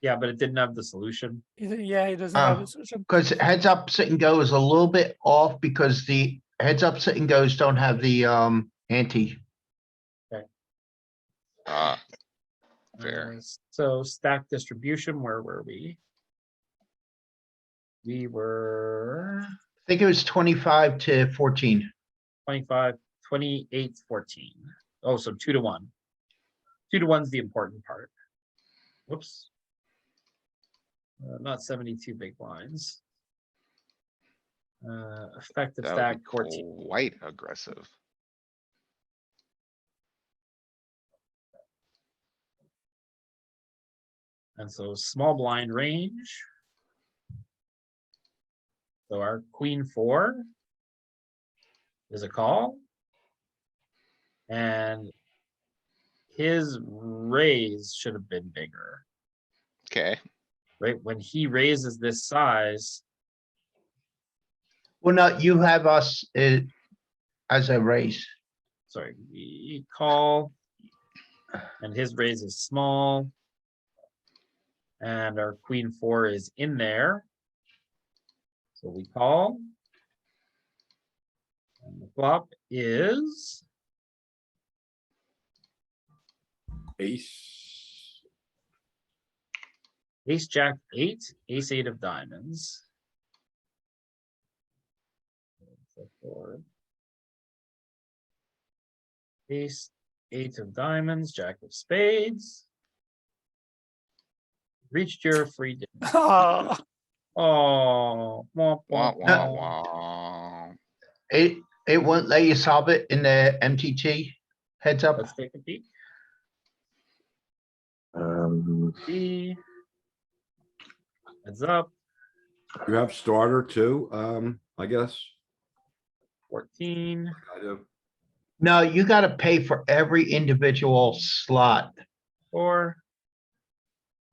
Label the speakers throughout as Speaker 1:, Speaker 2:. Speaker 1: Yeah, but it didn't have the solution.
Speaker 2: You think- Yeah, he doesn't have
Speaker 3: Oh.
Speaker 2: a solution.
Speaker 3: Because heads up, sit and go is a little bit off because the heads up, sit and goes don't have the um ante.
Speaker 4: Ah, Fair.
Speaker 1: Uh, So stack distribution, where were we? We were
Speaker 3: I think it was twenty-five to fourteen.
Speaker 1: 25, 28, 14. Oh, so two to one. Two to one's the important part. Whoops. Uh, Not seventy-two big blinds. Uh, effective
Speaker 4: that
Speaker 1: stack
Speaker 4: would be
Speaker 1: fourteen,
Speaker 4: quite aggressive.
Speaker 1: and so small blind range. So our queen four is a call. And his raise should have been bigger.
Speaker 4: Okay,
Speaker 1: right? When he raises this size,
Speaker 3: Well, no, you have us uh, as a race.
Speaker 1: sorry, we call. And his raise is small. And our queen four is in there. So we call. And the flop is
Speaker 5: Ace.
Speaker 1: ace, jack, eight, ace, eight of diamonds. Four. Ace, eight of diamonds, jack of spades. Reached your free. di-
Speaker 2: Oh,
Speaker 1: Oh. womp,
Speaker 4: wah,
Speaker 1: womp,
Speaker 4: wah,
Speaker 1: womp.
Speaker 4: wah.
Speaker 3: It, it won't let you solve it in the MTT heads up.
Speaker 1: Let's take a peek.
Speaker 5: Um,
Speaker 1: See. Heads up,
Speaker 5: you have starter too, um, I guess.
Speaker 1: fourteen.
Speaker 5: I do.
Speaker 3: No, you gotta pay for every individual slot.
Speaker 1: Four.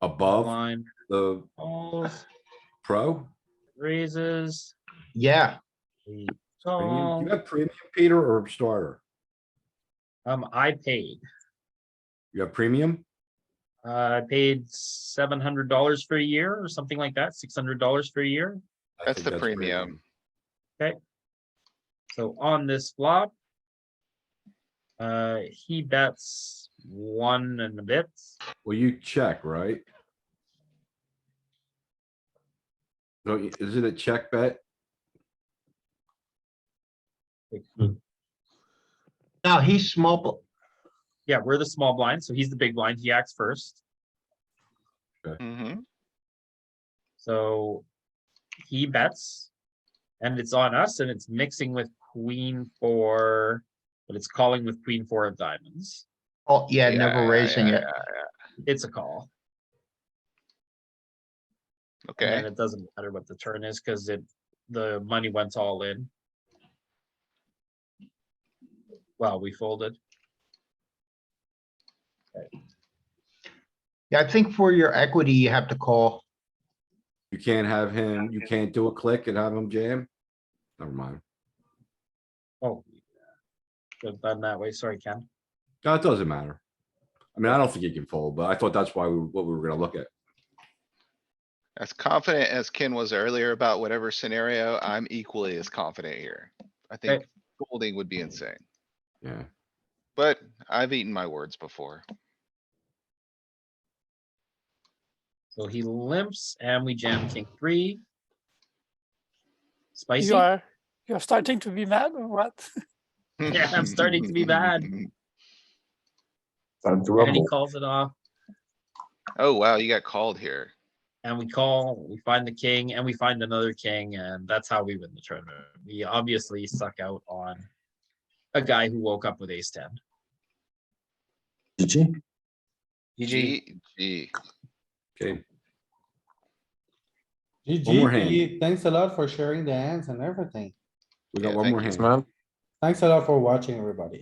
Speaker 5: Above
Speaker 1: line,
Speaker 5: the
Speaker 1: calls,
Speaker 5: pro?
Speaker 1: raises.
Speaker 3: Yeah,
Speaker 1: we
Speaker 5: Premium?
Speaker 4: Um,
Speaker 1: call.
Speaker 5: You have premium, Peter, or starter?
Speaker 1: Um, I paid,
Speaker 5: You have premium?
Speaker 1: uh, I paid seven hundred dollars for a year or something like that, six hundred dollars for a year.
Speaker 5: I
Speaker 4: That's
Speaker 5: think
Speaker 4: the premium.
Speaker 1: So on this flop. Uh, he bets one and a bit.
Speaker 5: Well, you check, right? No, y- is it a check bet?
Speaker 3: no, he's small, bl-
Speaker 1: Yeah, we're the small blind, so he's the big blind. He acts first.
Speaker 4: Mm-hmm,
Speaker 1: So he bets. And it's on us and it's mixing with queen four, but it's calling with queen four of diamonds.
Speaker 3: oh, yeah,
Speaker 4: Yeah,
Speaker 3: never raising
Speaker 4: yeah,
Speaker 3: it.
Speaker 1: It's a call. And
Speaker 4: okay,
Speaker 1: then it doesn't matter what the turn is because it, the money went all in. Well, we folded.
Speaker 3: Yeah, I think for your equity, you have to call.
Speaker 5: You can't have him, you can't do a click and have him jam? Never mind.
Speaker 1: Oh. Could have done that way. Sorry, Ken.
Speaker 5: No, it doesn't matter. I mean, I don't think he can fold, but I thought that's why, we what we were gonna look at.
Speaker 4: as confident as Ken was earlier about whatever scenario, I'm equally as confident here. I think folding would be insane,
Speaker 5: Yeah,
Speaker 4: but I've eaten my words before.
Speaker 1: So he limps and we jam king three. Spicy.
Speaker 2: you are, you're starting to be mad or what?
Speaker 1: Yeah, I'm starting to be bad.
Speaker 6: Time to
Speaker 1: And he
Speaker 6: rumble.
Speaker 1: calls it off
Speaker 4: Oh, wow, you got called here.
Speaker 1: and we call, we find the king and we find another king and that's how we win the tournament. We obviously suck out on a guy who woke up with ace ten.
Speaker 6: GG.
Speaker 4: G, G.
Speaker 5: okay, One more hand.
Speaker 7: GG, Pete, thanks a lot for sharing the hands and everything.
Speaker 5: we got
Speaker 4: Yeah,
Speaker 5: one
Speaker 4: thank
Speaker 5: more
Speaker 4: you.
Speaker 5: hand.
Speaker 6: Man.
Speaker 7: Thanks a lot for watching, everybody.